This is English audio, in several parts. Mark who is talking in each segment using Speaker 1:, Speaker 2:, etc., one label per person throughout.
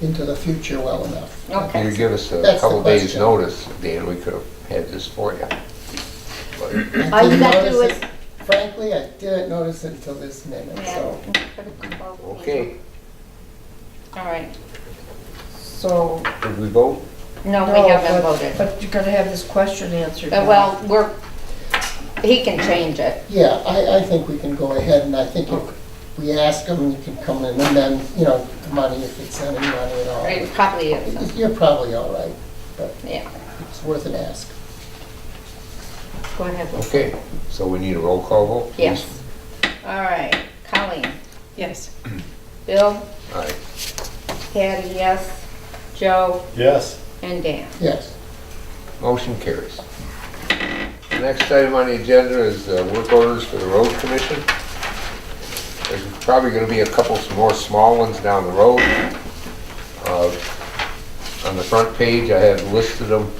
Speaker 1: into the future well enough.
Speaker 2: Okay.
Speaker 3: If you give us a
Speaker 1: That's the
Speaker 3: couple days'
Speaker 1: question.
Speaker 3: notice, Dan, we could have had this for you. But
Speaker 1: I
Speaker 2: All you
Speaker 1: didn't
Speaker 2: gotta do
Speaker 1: notice
Speaker 2: is-
Speaker 1: it- Frankly, I didn't notice it until this minute, so.
Speaker 3: Okay,
Speaker 2: All right,
Speaker 4: So,
Speaker 3: did we vote?
Speaker 2: no,
Speaker 4: no,
Speaker 2: we
Speaker 4: but,
Speaker 2: haven't voted. Uh,
Speaker 4: but you're gonna have this question answered. now.
Speaker 2: Well, we're, he can change it.
Speaker 1: Yeah, I, I think we can go ahead, and I think if we ask them, you can come in, and then, you know, the money, if it's any money at all.
Speaker 2: It probably is,
Speaker 1: You're probably all right, but
Speaker 2: yeah.
Speaker 1: it's worth an ask.
Speaker 2: Go ahead. Lou.
Speaker 3: Okay, so we need a roll call vote? please?
Speaker 2: Yes. All right, Colleen?
Speaker 5: Yes.
Speaker 2: Bill?
Speaker 3: All right,
Speaker 2: Patty, yes. Joe?
Speaker 6: Yes.
Speaker 2: And Dan?
Speaker 1: Yes,
Speaker 3: motion carries. The next item on the agenda is uh, work orders for the road commission. There's probably gonna be a couple more small ones down the road. Uh, On the front page, I have listed them.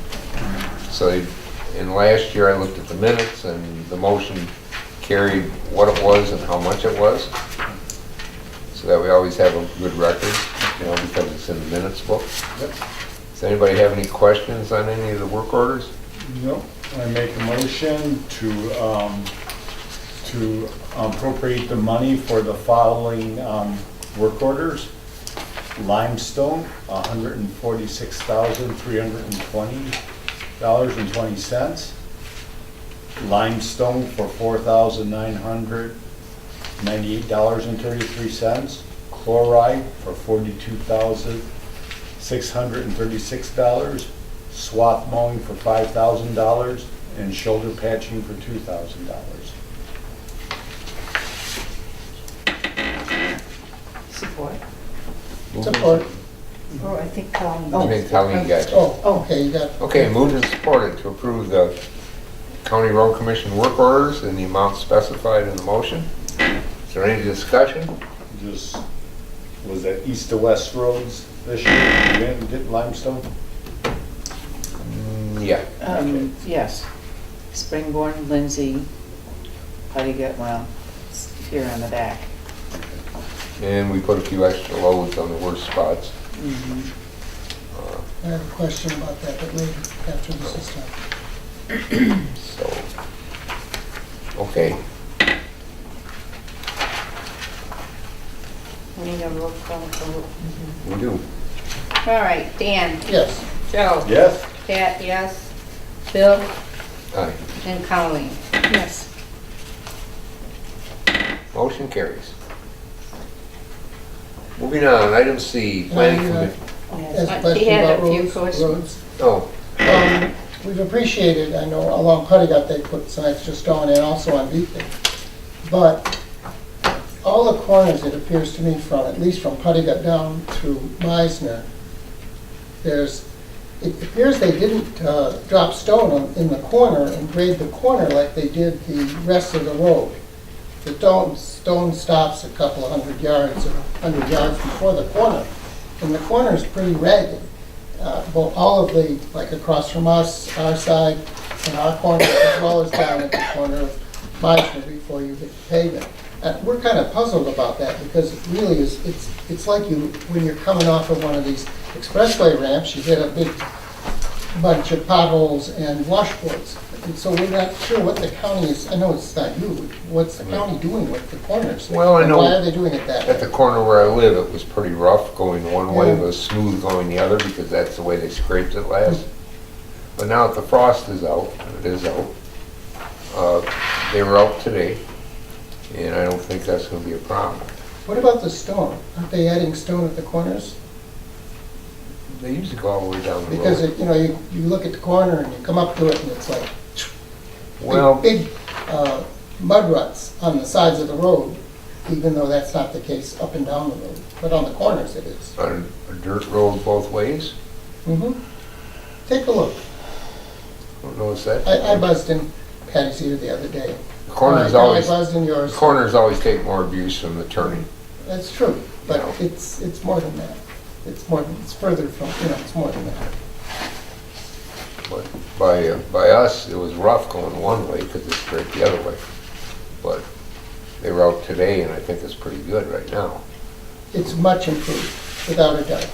Speaker 3: So in last year, I looked at the minutes and the motion carried what it was and how much it was. So that we always have a good record, you know, because it's in the minutes book. Does anybody have any questions on any of the work orders?
Speaker 6: No, I make a motion to, um, to appropriate the money for the following, um, work orders. Limestone, hundred and forty-six thousand, three hundred and twenty dollars and twenty cents. Limestone for four thousand, nine hundred ninety-eight dollars and thirty-three cents. Chloride for forty-two thousand, six hundred and thirty-six dollars, swath mowing for five thousand dollars, and shoulder patching for two thousand dollars.
Speaker 4: Support.
Speaker 1: support.
Speaker 4: Oh, I think Colleen.
Speaker 3: I think Colleen got you.
Speaker 1: Oh, okay, you got,
Speaker 3: Okay, moved and supported to approve the county road commission work orders in the amount specified in the motion. Is there any discussion?
Speaker 6: Just, was that east to west roads this year, you didn't get limestone?
Speaker 3: Mm, Yeah,
Speaker 7: Um, yes. Springborn, Lindsay, Putty Gut, well, it's here on the back.
Speaker 3: and we put a few extra loads on the worst spots.
Speaker 1: I have a question about that, but later, after this is done.
Speaker 3: So, okay,
Speaker 2: We need a roll call vote.
Speaker 3: we do.
Speaker 2: All right, Dan?
Speaker 1: Yes,
Speaker 2: Joe?
Speaker 6: Yes?
Speaker 2: Pat, yes. Bill?
Speaker 3: Aye.
Speaker 2: And Colleen?
Speaker 5: Yes.
Speaker 3: Motion carries. Moving on, item C, planning
Speaker 1: Now, you
Speaker 3: committee.
Speaker 1: has a
Speaker 2: Uh, He
Speaker 1: question
Speaker 2: had
Speaker 1: about
Speaker 2: a few
Speaker 1: roads.
Speaker 2: questions.
Speaker 1: roads.
Speaker 3: Oh,
Speaker 1: Um, We've appreciated, I know along Puttigat, they put some extra stone and also on Beacon. But all the corners, it appears to me, from, at least from Puttigat down to Meisner, there's, it appears they didn't uh, drop stone on- in the corner and grade the corner like they did the rest of the road. The stone, stone stops a couple of hundred yards, or 100 yards before the corner. And the corner is pretty ragged uh, well, all of the, like across from us, our side, and our corner, as well as down at the corner of Meisner before you hit the pavement. And we're kind of puzzled about that because it really is, it's, it's like you, when you're coming off of one of these expressway ramps, you hit a big bunch of potholes and washboards. And so we're not sure what the county is, I know it's not you, what's the county doing with the corners?
Speaker 3: Well, I
Speaker 1: And
Speaker 3: know-
Speaker 1: Why are they doing it that way?
Speaker 3: At the corner where I live, it was pretty rough going one way, it
Speaker 1: Yeah.
Speaker 3: was smooth going the other because that's the way they scraped it last. But now that the frost is out, and it is out, uh, they were out today, and I don't think that's gonna be a problem.
Speaker 1: What about the stone? Aren't they adding stone at the corners?
Speaker 3: They used to go all the way down the
Speaker 1: Because,
Speaker 3: road.
Speaker 1: it- you know, you, you look at the corner and you come up to it and it's like big,
Speaker 3: Well,
Speaker 1: big uh, mud ruts on the sides of the road, even though that's not the case up and down the road, but on the corners it is.
Speaker 3: on a dirt road both ways,
Speaker 1: Mhm. Take a look.
Speaker 3: don't notice that.
Speaker 1: I, I buzzed in Patty's ear the other day. Uh,
Speaker 3: The Corners
Speaker 1: I-
Speaker 3: always,
Speaker 1: I buzzed in
Speaker 3: the
Speaker 1: yours.
Speaker 3: corners always take more abuse from the turning.
Speaker 1: That's true, but
Speaker 3: Yeah.
Speaker 1: it's, it's more than that. It's more, than it's further from, you know, it's more than that.
Speaker 3: But by, by us, it was rough going one way because it's straight the other way. But they were out today and I think it's pretty good right now.
Speaker 1: It's much improved, without a doubt.